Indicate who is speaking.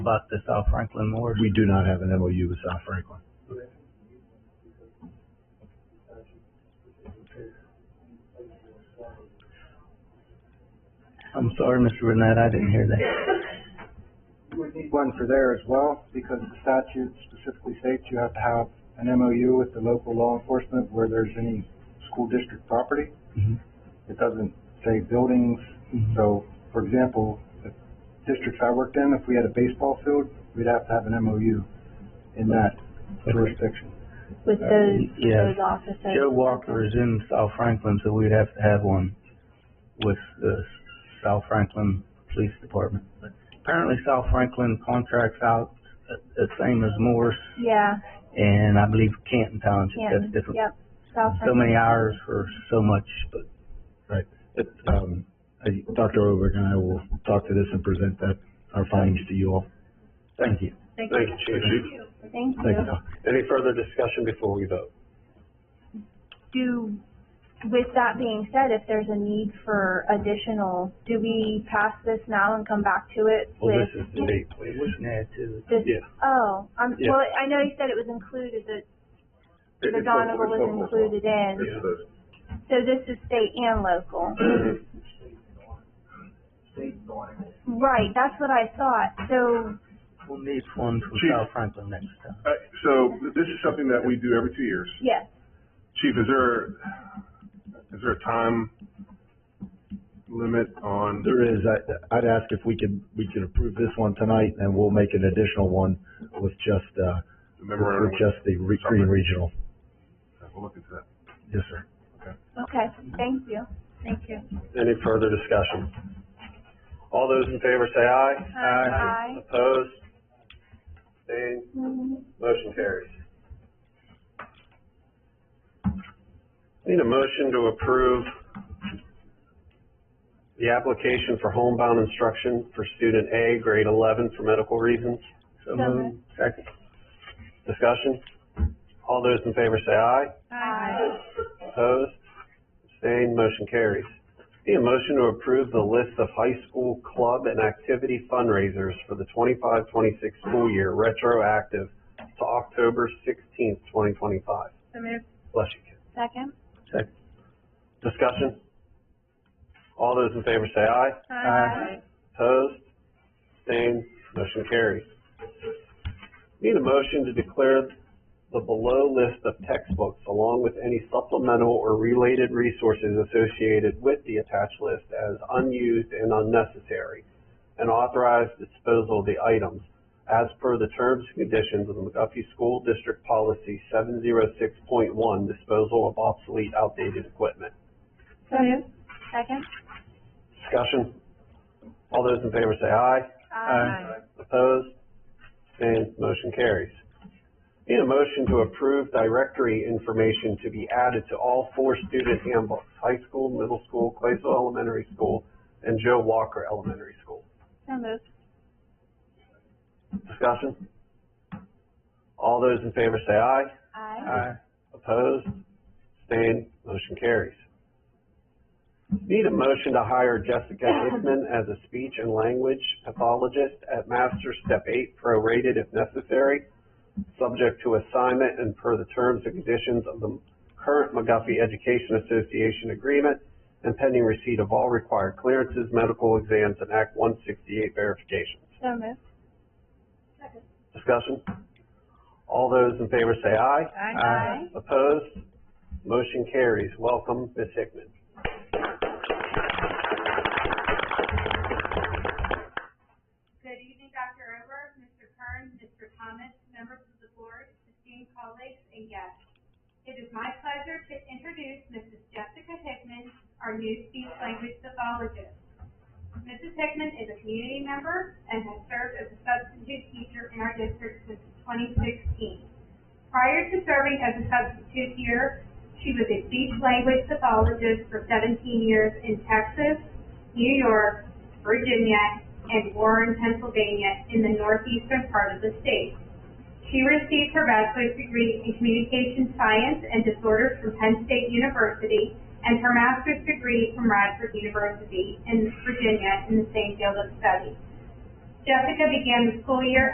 Speaker 1: about the South Franklin Ward.
Speaker 2: We do not have an MOU with South Franklin.
Speaker 1: I'm sorry, Mr. Burnett, I didn't hear that.
Speaker 3: We need one for there as well, because the statute specifically states you have to have an MOU with the local law enforcement where there's any school district property.
Speaker 1: Mhm.
Speaker 3: It doesn't say buildings, so, for example, the districts I worked in, if we had a baseball field, we'd have to have an MOU in that jurisdiction.
Speaker 4: with
Speaker 5: Uh,
Speaker 4: those,
Speaker 1: yeah.
Speaker 4: those officers.
Speaker 1: Joe Walker is in South Franklin, so we'd have to have one with the South Franklin Police Department. Apparently South Franklin contracts out uh, the same as Morris
Speaker 4: Yeah,
Speaker 1: and I believe Canton Township,
Speaker 4: Canton,
Speaker 1: that's different.
Speaker 4: yep, South
Speaker 1: So
Speaker 4: Franklin.
Speaker 1: many hours for so much, but
Speaker 2: Right. It, um, I, Dr. Oberg and I will talk to this and present that, our findings to you all.
Speaker 1: thank you.
Speaker 5: Thank you, Chief.
Speaker 4: Thank
Speaker 2: Thank you,
Speaker 4: you.
Speaker 2: Doc.
Speaker 5: Any further discussion before we vote?
Speaker 4: Do, with that being said, if there's a need for additional, do we pass this now and come back to it
Speaker 5: Well,
Speaker 4: with?
Speaker 5: this is the date,
Speaker 1: We
Speaker 5: please.
Speaker 1: can add to
Speaker 4: This,
Speaker 5: yeah.
Speaker 4: oh, um,
Speaker 5: Yeah.
Speaker 4: well, I know you said it was included, that the Donovan was included in, so this is state and local. Right, that's what I thought, so,
Speaker 1: it. We'll need one from
Speaker 6: Chief.
Speaker 1: South Franklin next time.
Speaker 6: Uh, so this is something that we do every two years.
Speaker 4: yes,
Speaker 6: Chief, is there, is there a time limit on,
Speaker 2: There is, I, I'd ask if we could, we could approve this one tonight and we'll make an additional one with just, uh,
Speaker 6: the
Speaker 2: with
Speaker 6: memorandum?
Speaker 2: just the re- Green Regional.
Speaker 6: We'll look into that.
Speaker 2: Yes, sir.
Speaker 4: okay, thank you. Thank you.
Speaker 5: Any further discussion? All those in favor say aye.
Speaker 4: Aye. Aye.
Speaker 5: Opposed? Abstained? Motion carries. Need a motion to approve the application for homebound instruction for student A, grade eleven, for medical reasons.
Speaker 1: So
Speaker 4: So
Speaker 1: moved. Second.
Speaker 5: Discussion? All those in favor say aye.
Speaker 4: Aye.
Speaker 5: Opposed? Abstained? Motion carries. Need a motion to approve the list of high school club and activity fundraisers for the 25-26 school year, retroactive to October sixteenth, twenty twenty-five. Bless you, kid.
Speaker 4: Second?
Speaker 1: Second.
Speaker 5: Discussion? All those in favor say aye.
Speaker 1: Aye.
Speaker 5: Opposed? Abstained? Motion carries. Need a motion to declare the below list of textbooks along with any supplemental or related resources associated with the attached list as unused and unnecessary, and authorize disposal of the items as per the terms and conditions of the McGuffey School District Policy seven zero six point one, disposal of obsolete outdated equipment.
Speaker 4: Second?
Speaker 5: Discussion? All those in favor say aye.
Speaker 1: Aye.
Speaker 5: Opposed? Abstained? Motion carries. Need a motion to approve directory information to be added to all four student handbooks, high school, middle school, Claysville Elementary School, and Joe Walker Elementary School.
Speaker 4: So moved.
Speaker 5: Discussion? All those in favor say aye.
Speaker 4: Aye.
Speaker 1: Aye.
Speaker 5: Opposed? Abstained? Motion carries. Need a motion to hire Jessica Hickman as a speech and language pathologist at master step eight prorated if necessary, subject to assignment and per the terms and conditions of the current McGuffey Education Association agreement and pending receipt of all required clearances, medical exams, and Act one sixty-eight verifications.
Speaker 4: So moved.
Speaker 5: Discussion? All those in favor say aye.
Speaker 4: Aye.
Speaker 5: Opposed? Motion carries. Welcome, Ms. Hickman.
Speaker 7: Good evening, Dr. Ober, Mr. Kern, Mr. Thomas, members of the board, esteemed colleagues, and guests. It is my pleasure to introduce Mrs. Jessica Hickman, our new speech language pathologist. Mrs. Hickman is a community member and has served as a substitute teacher in our district since twenty sixteen. Prior to serving as a substitute here, she was a speech language pathologist for seventeen years in Texas, New York, Virginia, and Warren, Pennsylvania, in the northeastern part of the state. She received her bachelor's degree in communication science and disorders from Penn State University and her master's degree from Radford University in Virginia in the same field of study. Jessica began the school year